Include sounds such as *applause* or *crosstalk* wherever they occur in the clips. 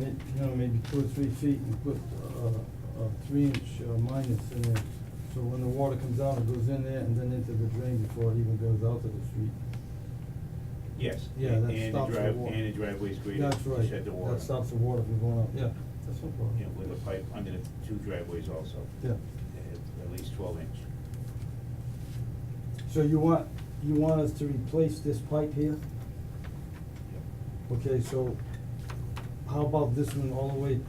You know, maybe two or three feet and put uh, a three-inch uh, minus in there. So when the water comes out, it goes in there and then into the drain before it even goes out to the street. Yes. Yeah, and- that and the stops the drive- water. And the driveway's graded. That's you right. said the water. That stops the water from going out, yeah, that's no problem. Yeah, with a pipe under the two driveways also. Yeah. At- At least twelve inch. So you want, you want us to replace this pipe here? Okay, so how about this one all the way?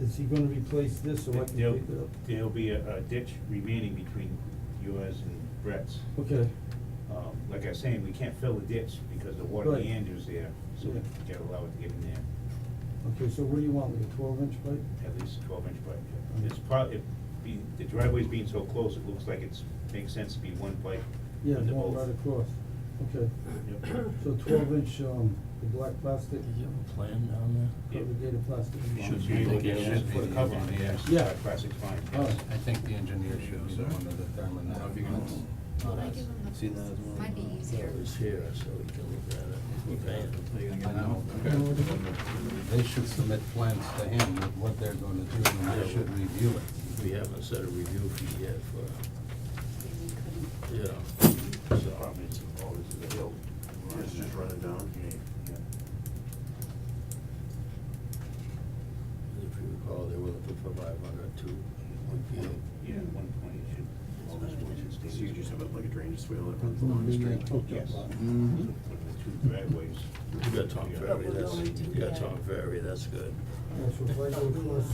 Is he gonna replace this so I can There'll- pick it up? There'll be a a ditch remaining between yours and Brett's. Okay, Um, Like I was saying, we can't fill the ditch because the water Right. meanders there, so we Yeah. gotta allow it to get in there. okay, so what do you want, like a twelve-inch pipe? At least twelve inch pipe. Mhm. It's probably, the driveway's being so close, it looks like it's, makes sense to be one pipe. Yeah, under going both. right across, okay. Yep. *coughs* So twelve inch, um, the black plastic, Did you have a plan down Yeah. corrugated plastic. Should Yeah, be you the can gas. just Put a cover on it, yes. Yeah. Classic fine, All yes. right. I think the engineer shows that one of the thermal, now if you can- Well, I give them the- See that as well? Might be easier. That was here, so we can look at it. Okay. I know. They should submit plans to him with what they're gonna do, and they should review it. *laughs* We haven't set a review fee yet for, Maybe couldn't- you know, The so, problem is, all this is a hill. It's just running down. Yeah. if you Oh. recall, Oh, they were looking for five hundred two, one field. Yeah, at one point it should, all this one should stay. So you just have it like a drainage swale that runs along the street. Yes. So Mhm. there? put the two driveways. You got Tom Ferry, we're that's, going to you got get- Tom Ferry, that's good. Yeah, so if I go *coughs* across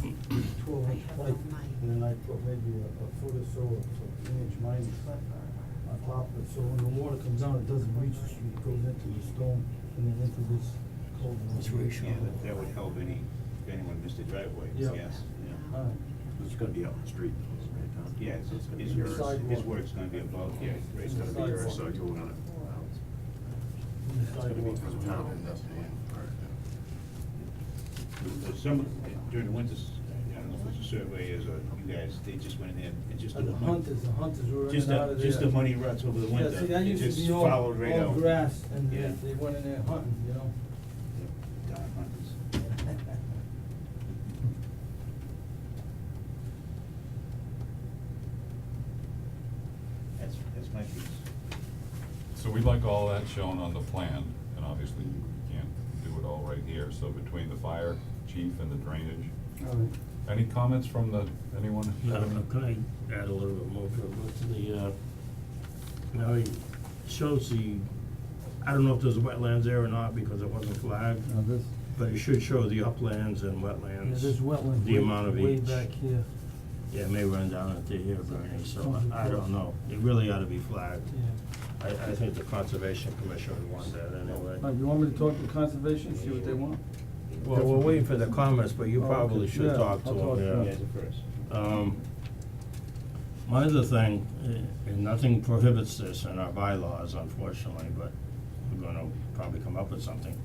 twelve I inch have it pipe, on mine. and then I put maybe a, a foot or so, or so an inch minus on top of it, so when the water comes out, it doesn't reach the street, it goes into the stone, and then into this culvert. It's ratio. Yeah, that- that would help any, if anyone missed a driveway, Yeah. yes, yeah. Alright, It's gonna be out in the street, though, right, Tom? Yeah, it's, It's gonna be his, work- yours. his Sidewalk. work's gonna be above, yeah, right, It's so gonna be yours, so you wanna, on the it's gonna be sidewalk. for the town. So Some, during the winters, I don't know if it's a survey is, or you guys, they just went in there and just. And the mon- hunters, the hunters were in Just and out the, of there. just the money ruts over the winter. Yeah, see, that It used to just be all, followed right all out. grass, and Yeah. they, they went in there hunting, you know? Yep, Don Hunters. That's, that's my piece. So we'd like all that shown on the plan, and obviously you can't do it all right here, so between the fire chief and the drainage. Alright. Any comments from the, anyone? I don't know, could I add a little bit more to it, but to the, uh, now it shows the, I don't know if there's wetlands there or not because it wasn't flagged, Now this, but it should show the uplands and yeah, wetlands. this wetland The amount of way, way each. back here, Yeah, it may run down into here, Bernie, so I I don't know, it really ought to be flagged. yeah. I, I think the conservation commission would want that All right, anyway. you want me to talk to conservation, see what they want? Well, we're waiting for the comments, but you Oh, okay. probably should Yeah, talk to I'll them, talk to yeah. them. Guys are first. Um, My other thing, eh, and nothing prohibits this in our bylaws unfortunately, but we're gonna probably come up with something.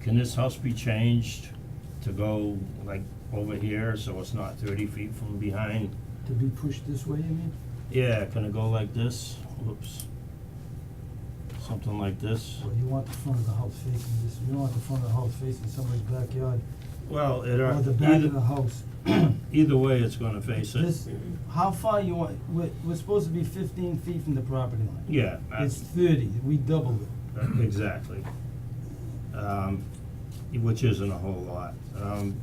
Can this house be changed to go like over here, so it's not thirty feet from behind? To be pushed this way, you mean? Yeah, can it go like this? Whoops. Something like this? Well, you want the front of the house facing this, you don't want the front of the house facing somebody's backyard, Well, it, or are- the back of the either, house. either way, it's gonna face it. This, how far you want, we're, we're supposed to be fifteen feet from the property line. Yeah, I- It's thirty, we doubled it. Uh, Exactly. Um, which isn't a whole lot. Um,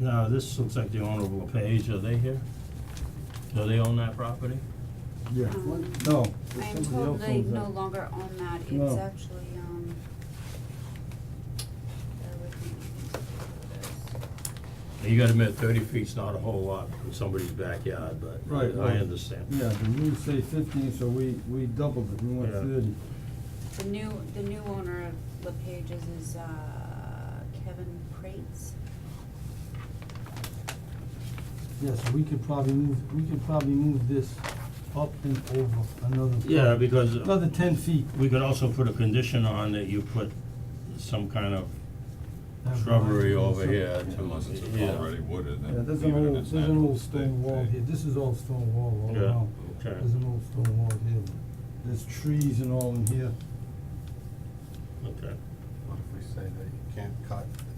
now, this looks like the Honorable LePage, are they here? Do they own that property? Yeah. Um, No. I'm told they no longer own that, it's No. actually, um, bear with me, Now, You gotta admit, thirty feet's not a whole lot in somebody's backyard, but Right, I right. understand. Yeah, the rules say fifteen, so we, we doubled it, we went Yeah. thirty. The new, the new owner of LePage's is, uh, Kevin Prates. Yeah, so we could probably move, we could probably move this up and over another. Yeah, because Another ten feet. we could also put a condition on that you put some kind of shrubbery over here to, Unless it's yeah. already wooded, Yeah, then there's leave an it old, at its there's an natural old stone state. wall here, this is all stone wall all Yeah, around. okay. There's an old stone wall here, there's trees and all in here. Okay. What if we say that you can't cut